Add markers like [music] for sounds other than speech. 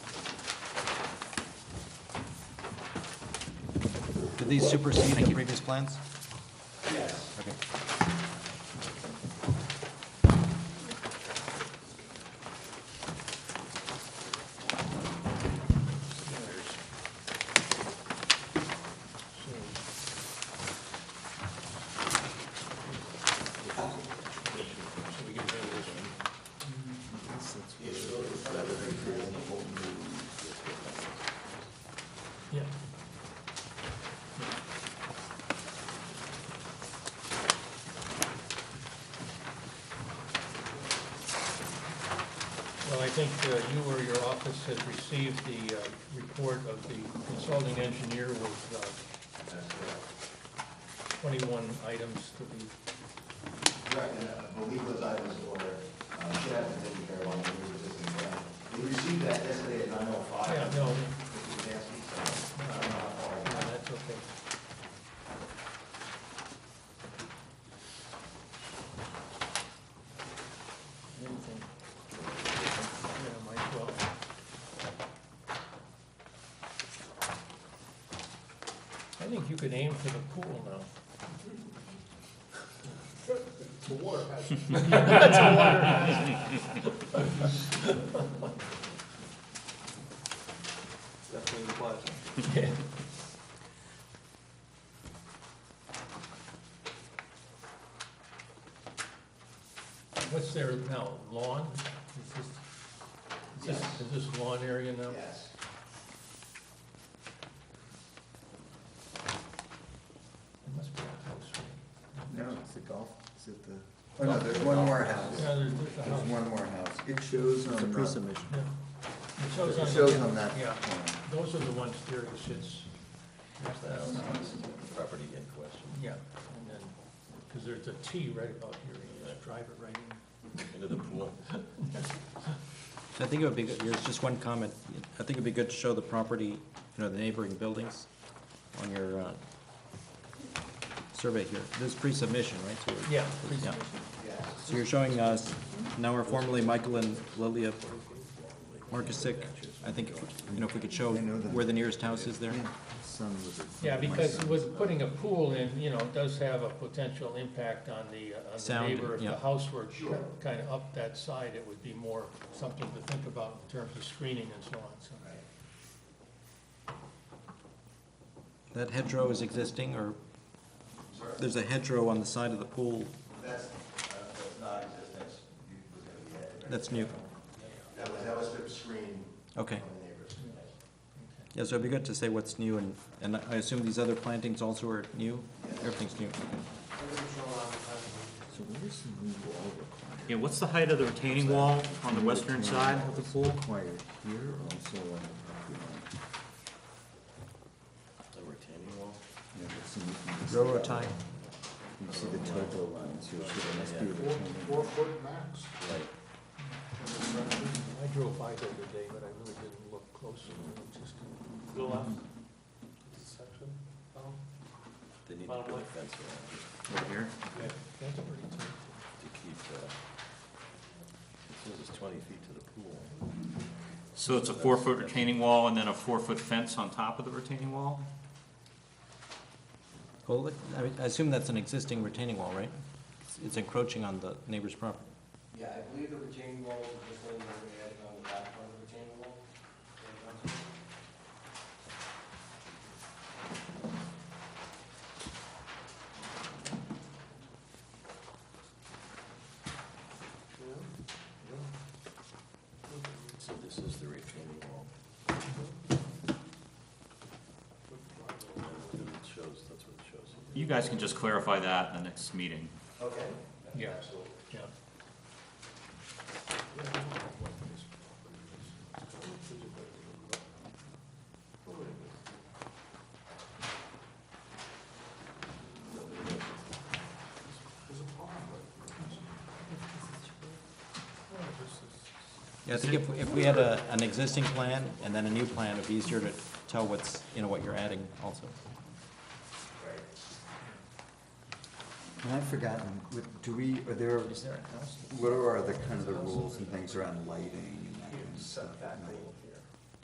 these supersede the previous plans? Yeah. Well, I think uh, you or your office has received the uh, report of the consulting engineer with uh, 21 items to be, Correct, and I believe those items were, uh, should have been taken care of on the existing plan. We received that yesterday at nine oh five. yeah, no, no, Mr. Nasty, so I don't know how far. that's okay. Anything? Yeah, might well. I think you could aim for the pool now. [laughs] Definitely the plaza. What's there now, lawn? Is this- is this, Yes. is this lawn area now? Yes. It must be a house. right? No, it's the golf, is it the, oh no, there's one more house. Yeah, there's, there's a There's house. one more house. It shows on, uh, Yeah. It shows on it the- shows on that. Yeah, plan. those are the ones there that sits. Property in question, Yeah, and then, because there's a T right about here, you just drive it right in. into the pool. So I think it would be, good- there's just one comment, I think it'd be good to show the property, you know, the neighboring buildings on your, uh, survey here, this is pre-submission, right? So we're- Yeah. Yeah. Yes. So you're showing us, now we're formerly Michael and Lilia Markusic, I think, you know, if we could show where the nearest house is there? Yeah, son was it. Yeah, My because son. with putting a pool in, you know, it does have a potential impact on the, uh, on the Sound, neighbor. If the yeah. house were kind of up that side, it would be more something to think about in terms of screening and so on, so. That hedgerow is existing, or, there's a hedgerow on the side of the pool That's, uh, that's not existence. You was gonna be added, right? that's new. That was, that was the screen from Okay, the neighbors. Yes. yeah, so it'd be good to say what's new, and, and I assume these other plantings also are new? Everything's new, okay. So where's the new wall required? Yeah, what's the height of the retaining wall on the western side of the pool? Required here or also on the property line? The retaining wall? Yeah, but see, you can see- Railroad tie, You can see the topo lines here, so it must be the. I drove by there today, but I really didn't look closely, I just. Go left. Section. Oh, They need to Bottom put a left. fence around it Over here? That's pretty tight. to keep, uh, it says it's twenty feet to the pool. So it's a four-foot retaining wall and then a four-foot fence on top of the retaining wall? well, look, I mean, I assume that's an existing retaining wall, right? It's- It's encroaching on the neighbor's property. Yeah, I believe the retaining wall is just one that we added on the back part of the retaining wall. So this is the retaining wall. And then it shows, that's what it shows. You guys can just clarify that in the next meeting. Okay. Yeah. Absolutely. Yeah. Yeah, I think if, if we had a, an existing plan and then a new plan, it'd be easier to tell what's, you know, what you're adding also. And I've forgotten, what- do we, are there, what are the kind of the rules and things around lighting and that kind of stuff? Setback rule.